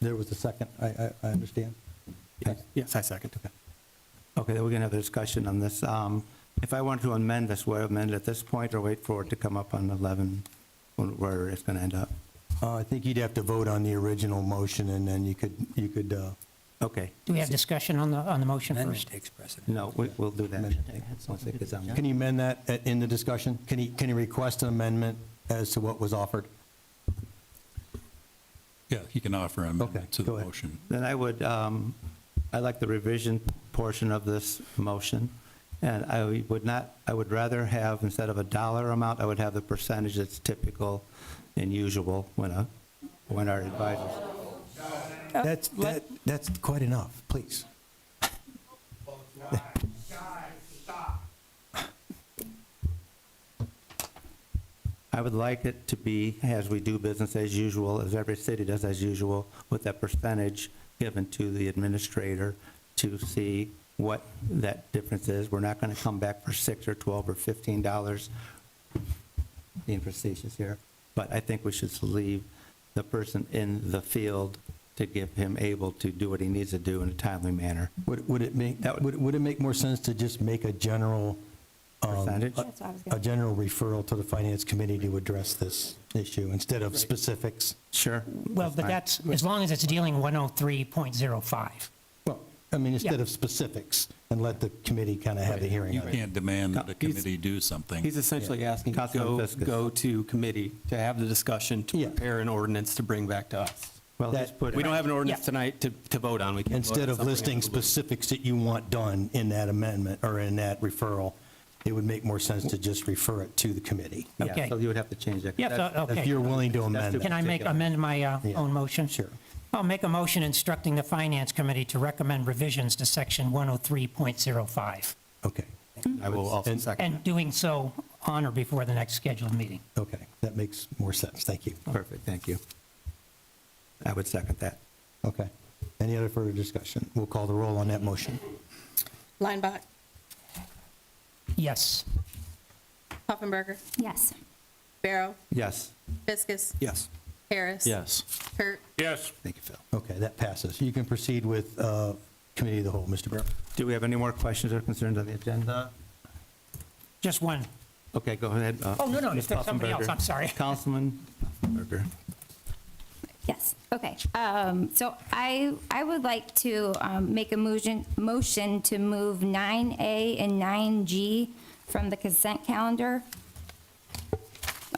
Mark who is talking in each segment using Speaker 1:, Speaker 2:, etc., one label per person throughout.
Speaker 1: There was a second, I, I, I understand.
Speaker 2: Yes, Yes, I second.
Speaker 1: Okay, then we're gonna have a discussion on this. Um, if I want to amend this, would I amend at this point or wait for it to come up on 11, when- where it's gonna end up?
Speaker 3: Uh, I think you'd have to vote on the original motion, and then you could, you could, uh,
Speaker 1: Okay,
Speaker 4: Do we have discussion on the, on the motion first?
Speaker 5: takes precedent.
Speaker 1: no, we, we'll do that. Once it gets on.
Speaker 3: can you amend that at- in the discussion? Can he, can he request an amendment as to what was offered?
Speaker 6: Yeah, he can offer an amendment to
Speaker 3: go
Speaker 6: the
Speaker 3: ahead.
Speaker 6: motion.
Speaker 1: Then I would, um, I like the revision portion of this motion, and I would not, I would rather have, instead of a dollar amount, I would have the percentage that's typical and usual when a, when our advisors.
Speaker 3: That's, that, that's quite enough, please.
Speaker 1: I would like it to be, as we do business as usual, as every city does as usual, with that percentage given to the administrator to see what that difference is. We're not going to come back for six or 12 or 15 dollars, being facetious here, but I think we should leave the person in the field to give him able to do what he needs to do in a timely manner.
Speaker 3: Would, would it make,
Speaker 1: That would-
Speaker 3: would, would it make more sense to just make a general, um,
Speaker 1: Percentage?
Speaker 3: a-
Speaker 7: That's what I was
Speaker 3: a
Speaker 7: gonna,
Speaker 3: general referral to the finance committee to address this issue instead of specifics?
Speaker 1: Sure.
Speaker 4: Well, but
Speaker 1: fine.
Speaker 4: that's, as long as it's dealing 103.05.
Speaker 3: Well, I mean, instead
Speaker 4: Yeah.
Speaker 3: of specifics, and let the committee kind of have the hearing
Speaker 6: You
Speaker 3: on it.
Speaker 6: can't demand that a
Speaker 2: He's-
Speaker 6: committee do something.
Speaker 2: He's essentially asking, to
Speaker 1: Councilman
Speaker 2: go,
Speaker 1: Fiskus.
Speaker 2: go to committee to have the discussion, to
Speaker 3: Yeah.
Speaker 2: prepare an ordinance to bring back to us.
Speaker 1: Well,
Speaker 3: that-
Speaker 1: let's put it-
Speaker 2: We don't have an ordinance
Speaker 4: Yeah.
Speaker 2: tonight to, to vote on. We can vote on
Speaker 3: Instead of
Speaker 2: something
Speaker 3: listing
Speaker 2: out the blue.
Speaker 3: specifics that you want done in that amendment or in that referral, it would make more sense to just refer it to the committee.
Speaker 1: Yeah,
Speaker 4: Okay.
Speaker 1: So you would have to change that. 'cause
Speaker 4: Yep,
Speaker 1: that's-
Speaker 4: so- okay.
Speaker 3: If you're willing to amend
Speaker 1: too
Speaker 3: it.
Speaker 4: Can I make, amend my uh,
Speaker 3: Yeah.
Speaker 4: own motion?
Speaker 3: Sure.
Speaker 4: I'll make a motion instructing the Finance Committee to recommend revisions to Section 103.05,
Speaker 3: Okay,
Speaker 1: I will also
Speaker 3: And-
Speaker 1: second.
Speaker 4: and doing so on or before the next scheduled meeting.
Speaker 3: okay, that makes more sense, thank you.
Speaker 1: Perfect, thank you. I would second that.
Speaker 3: Okay, any other further discussion? We'll call the roll on that motion.
Speaker 7: Linebach,
Speaker 4: Yes.
Speaker 7: Poffenberger,
Speaker 8: Yes.
Speaker 7: Barrow,
Speaker 1: Yes.
Speaker 7: Fiskus,
Speaker 2: Yes.
Speaker 7: Harris.
Speaker 2: Yes.
Speaker 7: Kurt,
Speaker 6: Yes.
Speaker 1: Thank you, Phil.
Speaker 3: Okay, that passes. You can proceed with uh, committee of the whole, Mr. Burrow.
Speaker 1: Do we have any more questions or concerns on the agenda?
Speaker 4: Just one.
Speaker 1: Okay, go ahead. uh,
Speaker 4: Oh, no, no,
Speaker 1: Ms.
Speaker 4: there's somebody else,
Speaker 1: Puffenberger.
Speaker 4: I'm sorry.
Speaker 1: Councilman Puffenberger.
Speaker 8: Yes. Okay. Um, so I, I would like to, um, make a motion, motion to move nine A and nine G from the consent calendar.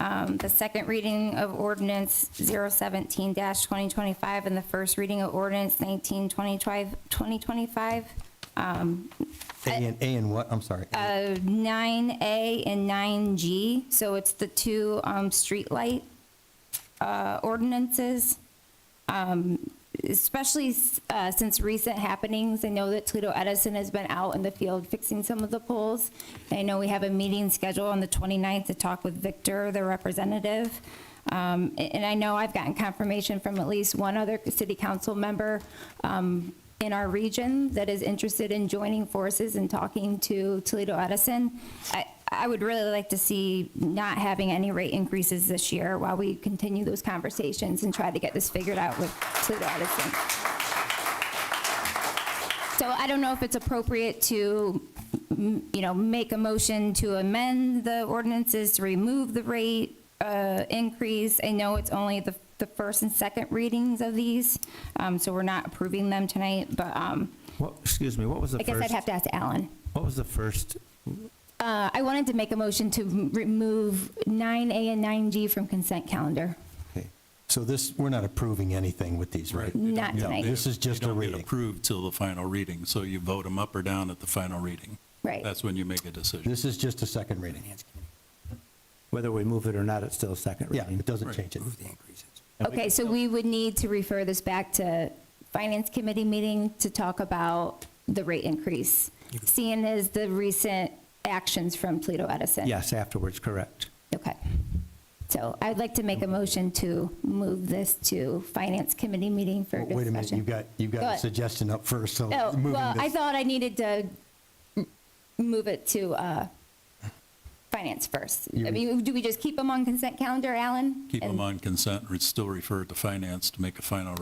Speaker 8: Um, the second reading of ordinance 017 twenty twenty-five and the first reading of ordinance 19 2025 Um,
Speaker 3: A and, A and what, I'm sorry?
Speaker 8: uh, nine A and nine G, so it's the two, um, streetlight, uh, ordinances. Um, especially, s- uh, since recent happenings, I know that Toledo Edison has been out in the field fixing some of the poles. I know we have a meeting scheduled on the 29th to talk with Victor, the representative. Um, a- and I know I've gotten confirmation from at least one other city council member, um, in our region that is interested in joining forces and talking to Toledo Edison. I, I would really like to see not having any rate increases this year while we continue those conversations and try to get this figured out with Toledo Edison. So I don't know if it's appropriate to, m- you know, make a motion to amend the ordinances, to remove the rate uh, increase. I know it's only the, the first and second readings of these, um, so we're not approving them tonight, but um,
Speaker 1: What, excuse me, what was the
Speaker 8: I
Speaker 1: first?
Speaker 8: guess I'd have to ask Alan.
Speaker 1: What was the first?
Speaker 8: Uh, I wanted to make a motion to m- remove 9A and 9G from consent calendar.
Speaker 1: okay.
Speaker 3: So this, we're not approving anything with these, right?
Speaker 8: Not tonight.
Speaker 3: This is
Speaker 6: They
Speaker 3: just a
Speaker 6: don't get
Speaker 3: reading.
Speaker 6: approved till the final reading, so you vote them up or down at the final reading.
Speaker 8: Right.
Speaker 6: That's when you make a decision.
Speaker 3: This is just a second reading.
Speaker 1: Whether we move it or not, it's still a second
Speaker 3: Yeah,
Speaker 1: reading.
Speaker 3: it doesn't change it.
Speaker 5: The increases.
Speaker 8: Okay, so we would need to refer this back to Finance Committee meeting to talk about the rate increase, seeing as the recent actions from Toledo Edison.
Speaker 1: Yes, afterwards, correct.
Speaker 8: Okay. So I'd like to make a motion to move this to Finance Committee meeting for discussion.
Speaker 3: Wait a minute, you've got, you've
Speaker 8: Go
Speaker 3: got a
Speaker 8: ahead.
Speaker 3: suggestion up first, so
Speaker 8: Oh,
Speaker 3: moving
Speaker 8: well, I
Speaker 3: this-
Speaker 8: thought I needed to m- move it to uh, Finance first. I
Speaker 3: You-
Speaker 8: mean, do we just keep them on consent calendar, Alan?
Speaker 6: Keep
Speaker 8: And-
Speaker 6: them on consent, and still refer it to finance to make a final